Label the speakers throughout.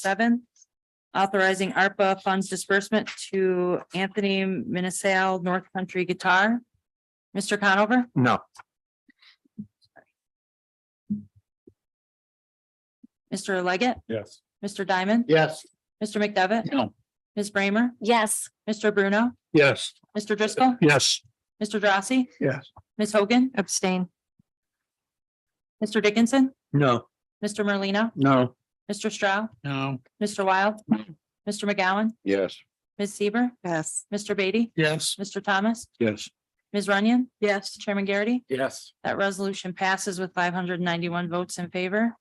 Speaker 1: seven. Authorizing ARPA funds disbursement to Anthony Minisale North Country Guitar. Mr. Conover,
Speaker 2: No,
Speaker 1: Mr. Leggett,
Speaker 2: yes.
Speaker 1: Mr. Diamond,
Speaker 2: Yes.
Speaker 1: Mr. McDevitt.
Speaker 2: No.
Speaker 1: Ms. Bramer. Yes. Mr. Bruno,
Speaker 2: Yes.
Speaker 1: Mr. Driscoll,
Speaker 2: Yes.
Speaker 1: Mr. Drossy,
Speaker 2: Yes.
Speaker 1: Ms. Hogan. Abstain. Mr. Dickinson,
Speaker 2: No.
Speaker 1: Mr. Merlino,
Speaker 2: No.
Speaker 1: Mr. Stroud,
Speaker 2: No.
Speaker 1: Mr. Wild, Mr. McGowan,
Speaker 2: Yes.
Speaker 1: Ms. Seaver. Yes. Mr. Beatty,
Speaker 2: Yes.
Speaker 1: Mr. Thomas,
Speaker 2: Yes.
Speaker 1: Ms. Runyon. Yes. Chairman Garrity.
Speaker 2: Yes.
Speaker 1: That resolution passes with five hundred and ninety-one votes in favor.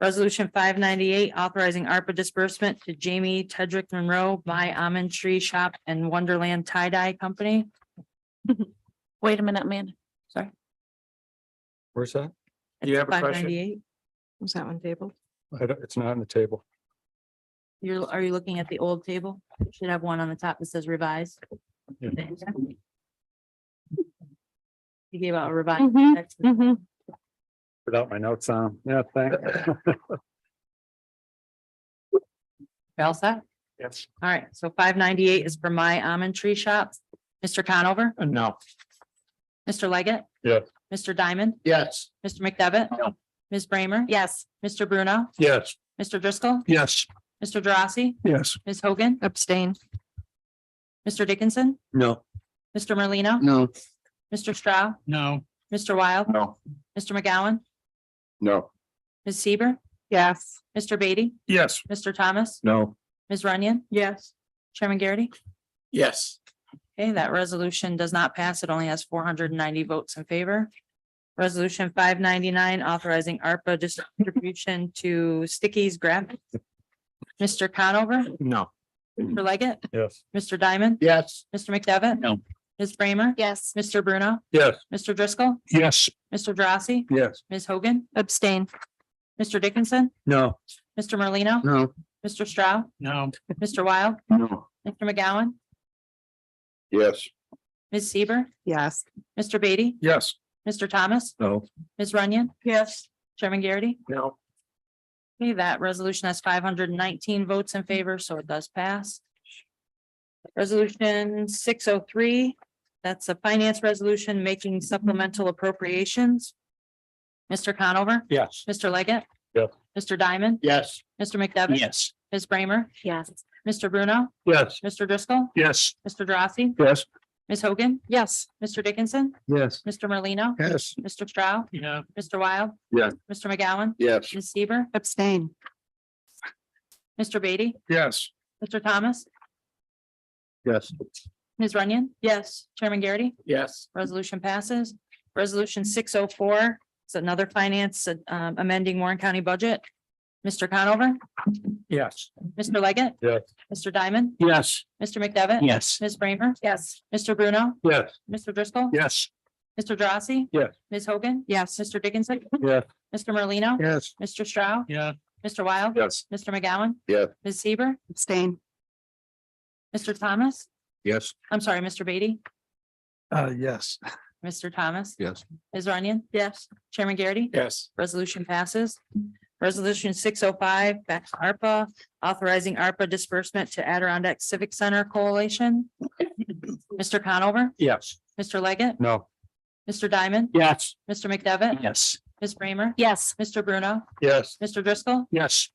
Speaker 1: Resolution five ninety-eight, authorizing ARPA disbursement to Jamie Tedrick Monroe by Almond Tree Shop and Wonderland Tie Dye Company.
Speaker 3: Wait a minute, man.
Speaker 1: Sorry.
Speaker 2: Where's that? You have a question?
Speaker 1: Five ninety-eight.
Speaker 3: Was that one table?
Speaker 2: I don't, it's not on the table.
Speaker 1: You're, are you looking at the old table? You Should have one on the top that says revised.
Speaker 2: Yeah.
Speaker 1: You gave out a revised.
Speaker 3: Mm-hmm,
Speaker 1: text.
Speaker 3: mm-hmm.
Speaker 2: Without my notes on. Yeah, thanks.
Speaker 1: All set?
Speaker 2: Yes.
Speaker 1: All right, so five ninety-eight is for my Almond Tree Shop. Mr. Conover?
Speaker 2: Uh, No.
Speaker 1: Mr. Leggett?
Speaker 2: Yeah.
Speaker 1: Mr. Diamond?
Speaker 2: Yes.
Speaker 1: Mr. McDevitt?
Speaker 2: No.
Speaker 1: Ms. Bramer?
Speaker 3: Yes,
Speaker 1: Mr. Bruno?
Speaker 2: Yes.
Speaker 1: Mr. Driscoll?
Speaker 2: Yes.
Speaker 1: Mr. Drossy?
Speaker 2: Yes.
Speaker 1: Ms. Hogan?
Speaker 3: abstain.
Speaker 1: Mr. Dickinson?
Speaker 2: No.
Speaker 1: Mr. Merlino?
Speaker 2: No.
Speaker 1: Mr. Stroud?
Speaker 2: No.
Speaker 1: Mr. Wild?
Speaker 2: No.
Speaker 1: Mr. McGowan?
Speaker 2: No.
Speaker 1: Ms. Seaver?
Speaker 3: Yes.
Speaker 1: Mr. Beatty?
Speaker 2: Yes.
Speaker 1: Mr. Thomas?
Speaker 2: No.
Speaker 1: Ms. Runyon?
Speaker 3: Yes.
Speaker 1: Chairman Garrity?
Speaker 2: Yes.
Speaker 1: Okay, that resolution does not pass. It only has four hundred and ninety votes in favor. Resolution five ninety-nine authorizing ARPA distribution to Stickies Graphics. Mr. Conover?
Speaker 2: No.
Speaker 1: Mr. Leggett?
Speaker 2: Yes.
Speaker 1: Mr. Diamond?
Speaker 2: Yes.
Speaker 1: Mr. McDevitt?
Speaker 2: No.
Speaker 1: Ms. Bramer?
Speaker 3: Yes.
Speaker 1: Mr. Bruno?
Speaker 2: Yes.
Speaker 1: Mr. Driscoll?
Speaker 2: Yes.
Speaker 1: Mr. Drossy?
Speaker 2: Yes.
Speaker 1: Ms. Hogan?
Speaker 3: Abstain.
Speaker 1: Mr. Dickinson?
Speaker 2: No.
Speaker 1: Mr. Merlino?
Speaker 2: No.
Speaker 1: Mr. Stroud?
Speaker 2: No.
Speaker 1: Mr. Wild?
Speaker 2: No.
Speaker 1: Mr. McGowan?
Speaker 2: Yes.
Speaker 1: Ms. Seaver?
Speaker 3: Yes.
Speaker 1: Mr. Beatty?
Speaker 2: Yes.
Speaker 1: Mr. Thomas?
Speaker 2: No.
Speaker 1: Ms. Runyon?
Speaker 3: Yes.
Speaker 1: Chairman Garrity?
Speaker 2: No.
Speaker 1: Okay, that resolution has five hundred and nineteen votes in favor, so it does pass. Resolution six oh three, that's a finance resolution making supplemental appropriations. Mr. Conover?
Speaker 2: Yes.
Speaker 1: Mr. Leggett?
Speaker 2: Yes.
Speaker 1: Mr. Diamond?
Speaker 2: Yes.
Speaker 1: Mr. McDevitt?
Speaker 2: Yes.
Speaker 1: Ms. Bramer?
Speaker 3: Yes.
Speaker 1: Mr. Bruno?
Speaker 2: Yes.
Speaker 1: Mr. Driscoll?
Speaker 2: Yes.
Speaker 1: Mr. Drossy?
Speaker 2: Yes.
Speaker 1: Ms. Hogan?
Speaker 3: Yes.
Speaker 1: Mr. Dickinson?
Speaker 2: Yes.
Speaker 1: Mr. Merlino?
Speaker 2: Yes.
Speaker 1: Mr. Stroud?
Speaker 2: Yeah.
Speaker 1: Mr. Wild?
Speaker 2: Yes.
Speaker 1: Mr. McGowan?
Speaker 2: Yes.
Speaker 1: Ms. Seaver?
Speaker 3: Abstain.
Speaker 1: Mr. Beatty?
Speaker 2: Yes.
Speaker 1: Mr. Thomas?
Speaker 2: Yes.
Speaker 1: Ms. Runyon?
Speaker 3: Yes.
Speaker 1: Chairman Garrity?
Speaker 2: Yes.
Speaker 1: Resolution passes. Resolution six oh four, it's another finance uh, um, amending Warren County budget. Mr. Conover?
Speaker 2: Yes.
Speaker 1: Mr. Leggett?
Speaker 2: Yes.
Speaker 1: Mr. Diamond?
Speaker 2: Yes.
Speaker 1: Mr. McDevitt?
Speaker 2: Yes.
Speaker 1: Ms. Bramer?
Speaker 3: Yes.
Speaker 1: Mr. Bruno?
Speaker 2: Yes.
Speaker 1: Mr. Driscoll?
Speaker 2: Yes.
Speaker 1: Mr. Drossy?
Speaker 2: Yes.
Speaker 1: Ms. Hogan?
Speaker 3: Yes.
Speaker 1: Mr. Dickinson?
Speaker 2: Yes.
Speaker 1: Mr. Merlino?
Speaker 2: Yes.
Speaker 1: Mr. Stroud?
Speaker 2: Yeah.
Speaker 1: Mr. Wild?
Speaker 2: Yes.
Speaker 1: Mr. McGowan?
Speaker 2: Yeah.
Speaker 1: Ms. Seaver?
Speaker 3: Abstain.
Speaker 1: Mr. Thomas?
Speaker 2: Yes.
Speaker 1: I'm sorry, Mr. Beatty?
Speaker 2: Uh, yes.
Speaker 1: Mr. Thomas?
Speaker 2: Yes.
Speaker 1: Ms. Runyon?
Speaker 3: Yes.
Speaker 1: Chairman Garrity?
Speaker 2: Yes.
Speaker 1: Resolution passes. Resolution six oh five, back to ARPA, authorizing ARPA disbursement to Adirondack Civic Center Coalition. Mr. Conover?
Speaker 2: Yes.
Speaker 1: Mr. Leggett?
Speaker 2: No.
Speaker 1: Mr. Diamond?
Speaker 2: Yes.
Speaker 1: Mr. McDevitt?
Speaker 2: Yes.
Speaker 1: Ms. Bramer?
Speaker 3: Yes.
Speaker 1: Mr. Bruno?
Speaker 2: Yes.
Speaker 1: Mr. Driscoll?
Speaker 2: Yes.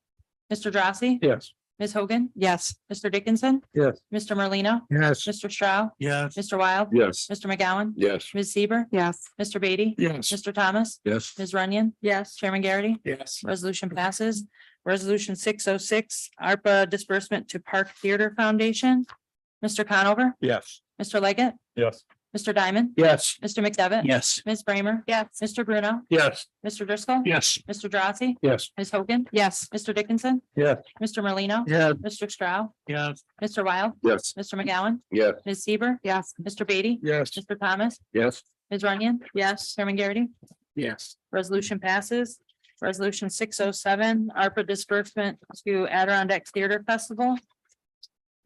Speaker 1: Mr. Drossy?
Speaker 2: Yes.
Speaker 1: Ms. Hogan?
Speaker 3: Yes.
Speaker 1: Mr. Dickinson?
Speaker 2: Yes.
Speaker 1: Mr. Merlino?
Speaker 2: Yes.
Speaker 1: Mr. Stroud?
Speaker 2: Yes.
Speaker 1: Mr. Wild?
Speaker 2: Yes.
Speaker 1: Mr. McGowan?
Speaker 2: Yes.
Speaker 1: Ms. Seaver?
Speaker 3: Yes.
Speaker 1: Mr. Beatty?
Speaker 2: Yes.
Speaker 1: Mr. Thomas?
Speaker 2: Yes.
Speaker 1: Ms. Runyon?
Speaker 3: Yes.
Speaker 1: Chairman Garrity?
Speaker 2: Yes.
Speaker 1: Resolution passes. Resolution six oh six, ARPA disbursement to Park Theater Foundation. Mr. Conover?
Speaker 2: Yes.
Speaker 1: Mr. Leggett?
Speaker 2: Yes.
Speaker 1: Mr. Diamond?
Speaker 2: Yes.
Speaker 1: Mr. McDevitt?
Speaker 2: Yes.
Speaker 1: Ms. Bramer?
Speaker 3: Yes.
Speaker 1: Mr. Bruno?
Speaker 2: Yes.
Speaker 1: Mr. Driscoll?
Speaker 2: Yes.
Speaker 1: Mr. Drossy?
Speaker 2: Yes.
Speaker 1: Ms. Hogan?
Speaker 3: Yes.
Speaker 1: Mr. Dickinson?
Speaker 2: Yes.
Speaker 1: Mr. Merlino?
Speaker 2: Yeah.
Speaker 1: Mr. Stroud?
Speaker 2: Yes.
Speaker 1: Mr. Wild?
Speaker 2: Yes.
Speaker 1: Mr. McGowan?
Speaker 2: Yes.
Speaker 1: Ms. Seaver?
Speaker 3: Yes.
Speaker 1: Mr. Beatty?
Speaker 2: Yes.
Speaker 1: Mr. Thomas?
Speaker 2: Yes.
Speaker 1: Ms. Runyon?
Speaker 3: Yes.
Speaker 1: Chairman Garrity?
Speaker 2: Yes.
Speaker 1: Resolution passes. Resolution six oh seven, ARPA disbursement to Adirondack Theater Festival.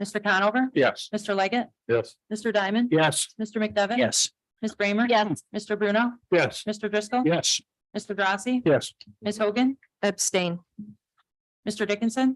Speaker 1: Mr. Conover?
Speaker 2: Yes.
Speaker 1: Mr. Leggett?
Speaker 2: Yes.
Speaker 1: Mr. Diamond?
Speaker 2: Yes.
Speaker 1: Mr. McDevitt?
Speaker 2: Yes.
Speaker 1: Ms. Bramer?
Speaker 3: Yes.
Speaker 1: Mr. Bruno?
Speaker 2: Yes.
Speaker 1: Mr. Driscoll?
Speaker 2: Yes.
Speaker 1: Mr. Drossy?
Speaker 2: Yes.
Speaker 1: Ms. Hogan?
Speaker 3: Abstain.
Speaker 1: Mr. Dickinson?